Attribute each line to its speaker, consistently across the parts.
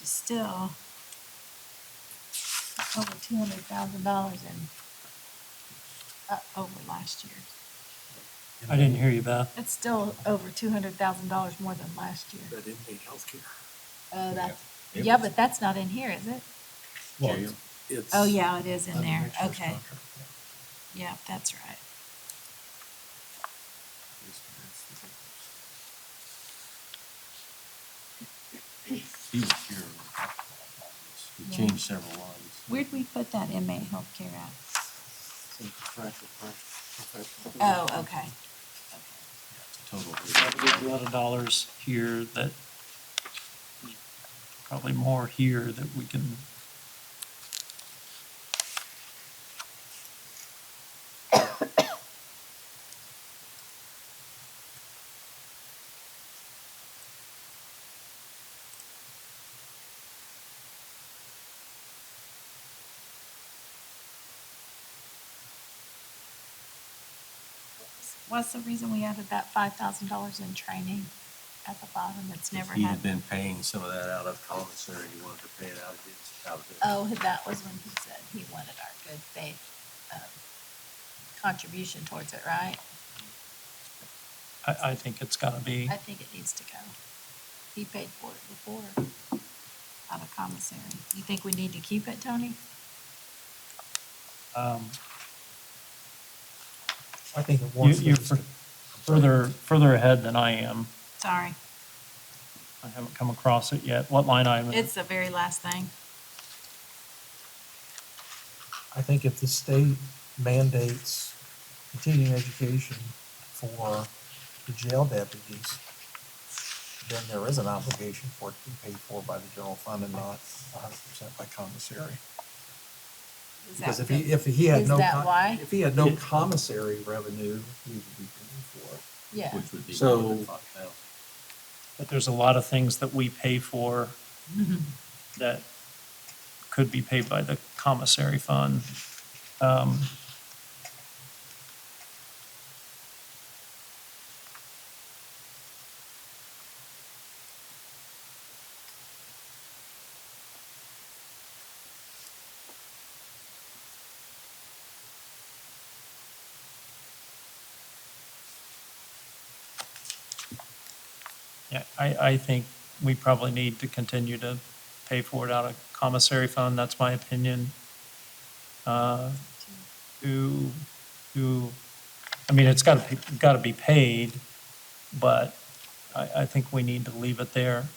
Speaker 1: is still over two hundred thousand dollars in up over last year.
Speaker 2: I didn't hear you, Beth.
Speaker 1: It's still over two hundred thousand dollars more than last year.
Speaker 3: That didn't need healthcare.
Speaker 1: Oh, that's,
Speaker 4: It
Speaker 1: yeah,
Speaker 4: was-
Speaker 1: but that's not in here, is it?
Speaker 4: Well,
Speaker 3: Yeah, It's.
Speaker 1: Oh, yeah, it is in there.
Speaker 4: That's the
Speaker 1: Okay,
Speaker 4: next year's contract,
Speaker 1: yeah, that's right.
Speaker 4: yeah. He was here when we talked about this. We
Speaker 1: Yeah.
Speaker 4: changed several lines.
Speaker 1: Where'd we put that inmate healthcare at?
Speaker 3: Some contractual part- professional.
Speaker 1: Oh, okay.
Speaker 4: Yeah, it's a Total.
Speaker 2: There's A lot of dollars here that, probably more here that we can,
Speaker 1: What's the reason we added that five thousand dollars in training at the bottom that's never
Speaker 4: He had
Speaker 1: happened?
Speaker 4: been paying some of that out of commissary, he wanted to pay it out of his, out of his.
Speaker 1: Oh, that was when he said he wanted our good faith, um, contribution towards it, right?
Speaker 2: I, I think it's gotta be,
Speaker 1: I think it needs to go. He paid for it before out of commissary. You think we need to keep it, Tony?
Speaker 2: um,
Speaker 5: I think it
Speaker 2: you,
Speaker 5: wants.
Speaker 2: you're
Speaker 5: them
Speaker 2: fur-
Speaker 5: to-
Speaker 2: further, further ahead than I am.
Speaker 1: Sorry,
Speaker 2: I haven't come across it yet. What line
Speaker 5: Uh,
Speaker 2: item? is it?
Speaker 1: it's the very last thing.
Speaker 5: I think if the state mandates continuing education for the jail deputies, then there is an obligation for it to be paid for by the general fund and not hundred percent by commissary.
Speaker 1: Is that
Speaker 5: Because if
Speaker 1: the-
Speaker 5: he, if he had
Speaker 1: Is
Speaker 5: no.
Speaker 1: that
Speaker 5: com-
Speaker 1: why?
Speaker 5: If he had no commissary revenue, he would be paying for it.
Speaker 1: Yeah,
Speaker 4: Which would be.
Speaker 3: So-
Speaker 4: more than 5,000.
Speaker 2: But there's a lot of things that we pay for that could be paid by the commissary fund. Um, Yeah, I, I think we probably need to continue to pay for it out of commissary fund, that's my opinion. Uh, To, to, I mean, it's gotta, be- gotta be paid, but I, I think we need to leave it there.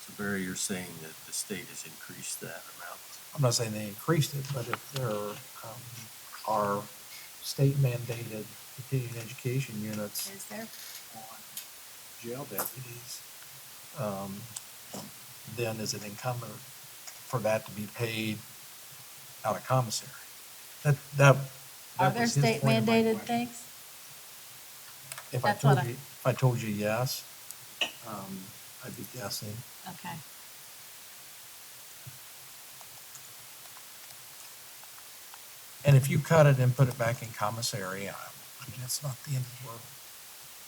Speaker 4: So Barry, you're saying that the state has increased that amount?
Speaker 5: I'm not saying they increased it, but if there um, are state mandated continuing education units
Speaker 1: is there?
Speaker 5: on jail deputies, um, then is it incumbent for that to be paid out of commissary? That, that.
Speaker 1: Are
Speaker 5: that
Speaker 1: there
Speaker 5: was his
Speaker 1: state
Speaker 5: point of my
Speaker 1: mandated
Speaker 5: question.
Speaker 1: things?
Speaker 5: If I
Speaker 1: That's what
Speaker 5: told
Speaker 1: I-
Speaker 5: you, if I told you yes, um, I'd be guessing.
Speaker 1: Okay.
Speaker 5: And if you cut it and put it back in commissary, I, I mean, it's not the end of the world.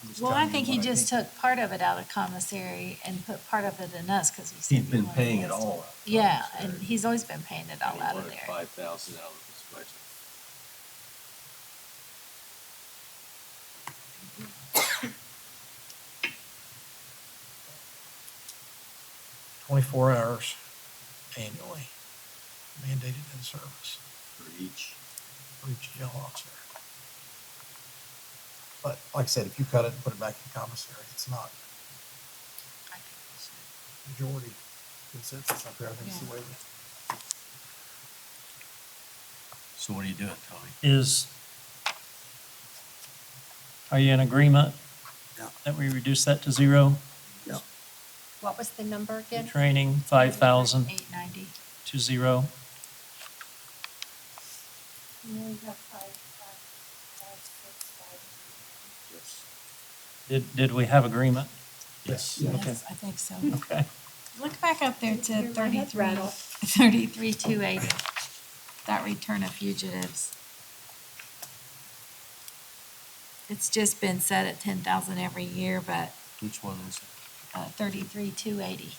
Speaker 5: I'm just
Speaker 1: Well, I
Speaker 5: telling you
Speaker 1: think he
Speaker 5: what
Speaker 1: just took part of it out of commissary and put part of it in us, cause he said.
Speaker 4: He's
Speaker 1: he
Speaker 4: been
Speaker 1: wanted
Speaker 4: paying it
Speaker 1: us to-
Speaker 4: all. out of
Speaker 1: Yeah,
Speaker 4: commissary,
Speaker 1: and he's always been paying it
Speaker 4: and
Speaker 1: all
Speaker 4: he
Speaker 1: out of
Speaker 4: wanted
Speaker 1: there.
Speaker 4: Five thousand out of his budget.
Speaker 5: Twenty-four hours annually mandated in service
Speaker 4: for each.
Speaker 5: for each jail officer. But like I said, if you cut it and put it back in commissary, it's not majority consensus up there. I think it's the way that.
Speaker 4: So what are you doing, Tony?
Speaker 2: Is, are you in agreement?
Speaker 3: Yeah.
Speaker 2: That we reduce that to zero?
Speaker 6: What was the number
Speaker 2: The
Speaker 6: again?
Speaker 2: Training, five thousand
Speaker 1: Eight ninety.
Speaker 2: to zero. Did, did we have agreement?
Speaker 4: Yes.
Speaker 2: Okay.
Speaker 1: Yes, I think so.
Speaker 2: Okay.
Speaker 1: Look back up there
Speaker 6: Hear
Speaker 1: to
Speaker 6: my head
Speaker 1: thirty-three,
Speaker 6: rattle.
Speaker 1: thirty-three, two eighty, that return of fugitives. It's just been set at ten thousand every year, but,
Speaker 4: Which one is it?
Speaker 1: uh, thirty-three, two eighty.